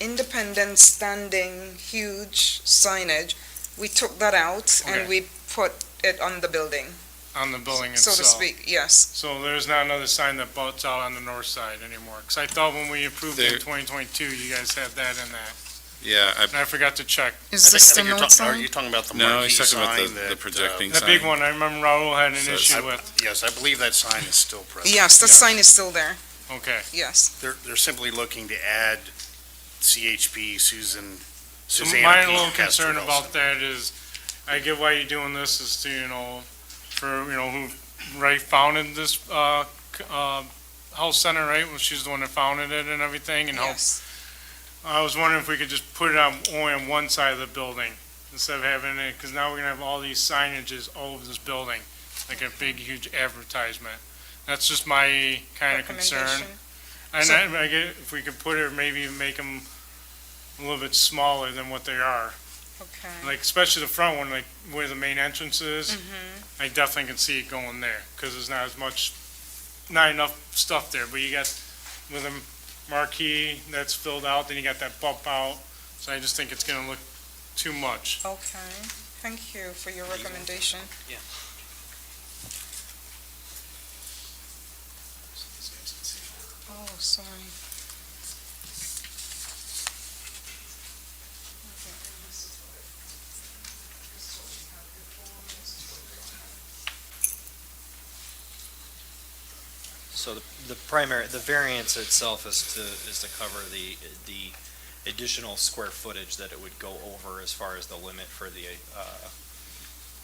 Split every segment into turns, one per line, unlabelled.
independent standing huge signage, we took that out
Okay.
and we put it on the building,
on the building
so
itself.
to speak, yes.
So there's not another sign that butts out on the north side anymore, because I thought when we approved it in
There-
2022, you guys had that in that,
Yeah, I,
and I forgot to check.
I
Is
think- I think you're talking- Are you talking about the
no,
marquee
he's talking about
sign
the,
that,
the
uh,
projecting
The
sign.
big one, I remember Raul had an
So-
issue
I-
with,
Yes, I believe that sign is still present.
Yes, the
Yes.
sign is still there,
okay,
yes.
They're, they're simply looking to add CHP Susan,
So
Suzanne.
My
P.
little
Castro
concern
Nelson.
about that is, I get why you're doing this is to, you know, for, you know, who, right, founded this, uh, c- uh, health center, right? Well, she's the one that founded it and everything, and helped
Yes.
I was wondering if we could just put it on, only on one side of the building, instead of having it, because now we're gonna have all these signages all over this building, like a big, huge advertisement. That's just my kind of concern.
Recommendation.
And
So-
I, I get, if we could put it, maybe make them a little bit smaller than what they are.
Okay.
Like, especially the front one, like where the main entrance is,
Mhm.
I definitely can see it going there, because there's not as much, not enough stuff there, but you got with a marquee that's filled out, then you got that bump out, so I just think it's gonna look too much.
Okay, thank you for your recommendation. Oh, sorry.
So the, the primary, the variance itself is to, is to cover the, the additional square footage that it would go over as far as the limit for the, uh,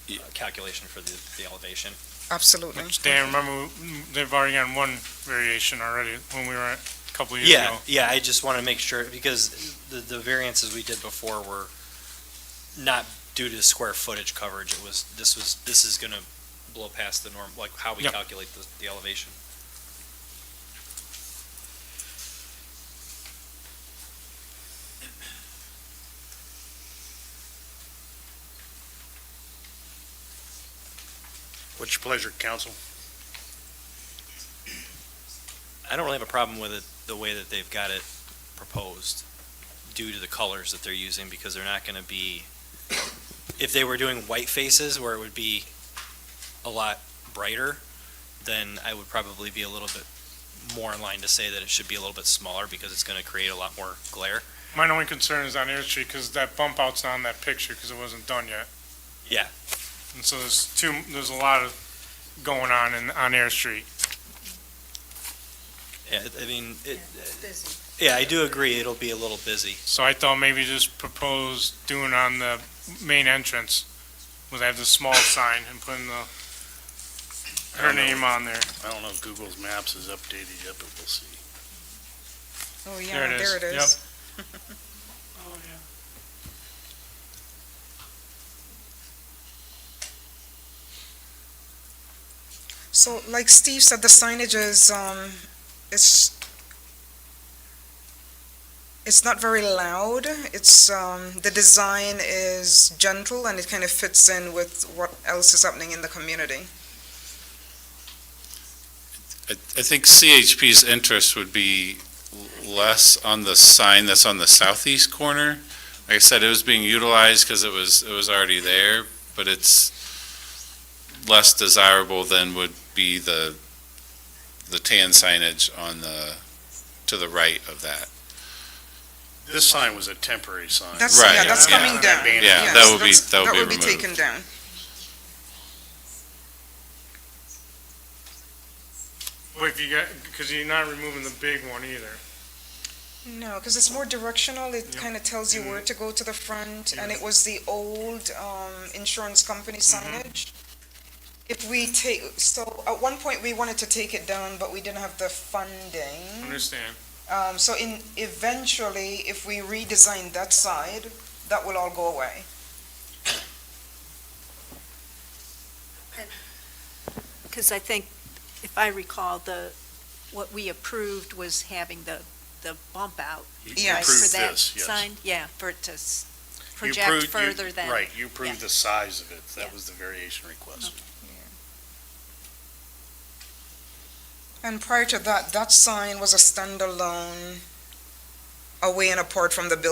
Ye-
uh, calculation for the, the elevation.
Absolutely.
Which, Dan, remember, mm, they've already gotten one variation already when we were at, a couple of years
Yeah,
ago.
yeah, I just want to make sure, because the, the variances we did before were not due to square footage coverage, it was, this was, this is going to blow past the norm, like how we
Yep.
calculate the, the elevation.
What's your pleasure, council?
I don't really have a problem with it, the way that they've got it proposed, due to the colors that they're using, because they're not gonna be, if they were doing white faces where it would be a lot brighter, then I would probably be a little bit more in line to say that it should be a little bit smaller, because it's gonna create a lot more glare.
My only concern is on Air Street, because that bump out's not on that picture, because it wasn't done yet.
Yeah.
And so there's two, there's a lot of going on in, on Air Street.
Yeah, I mean, it, yeah, I do agree, it'll be a little busy.
So I thought maybe just propose doing on the main entrance, was have the small sign and putting the, her name on there.
I don't know if Google's Maps is updated yet, but we'll see.
Oh, yeah,
it
there
is.
it is. So like Steve said, the signage is, um, it's, it's not very loud. It's, um, the design is gentle and it kind of fits in with what else is happening in the community.
I, I think CHP's interest would be l- less on the sign that's on the southeast corner. Like I said, it was being utilized because it was, it was already there, but it's less desirable than would be the, the tan signage on the, to the right of that.
This sign was a temporary sign.
That's, yeah,
Right,
that's
yeah.
coming down.
Yeah,
Yes,
that would be-
that's-
that would be
That would be taken down.
But if you got, because you're not removing the big one either.
No, because it's more directional, it
Yep.
kind of tells you where
Mhm.
to go to the front, and
Yes.
it was the old um, insurance company signage. If we take, so at one point, we wanted to take it down, but we didn't have the funding.
Understand?
Um, So in, eventually, if we redesign that side, that will all go away.
Because I think, if I recall, the, what we approved was having the, the bump out.
You
Yes.
right,
Approve
approved
for that
this, yes.
Sign, yeah, for it to s-
You
project
approved- you-
further than.
Right, you approved
yeah.
the size of it. That
Yeah.
was the variation request.
And prior to that, that sign was a standalone away and apart from the building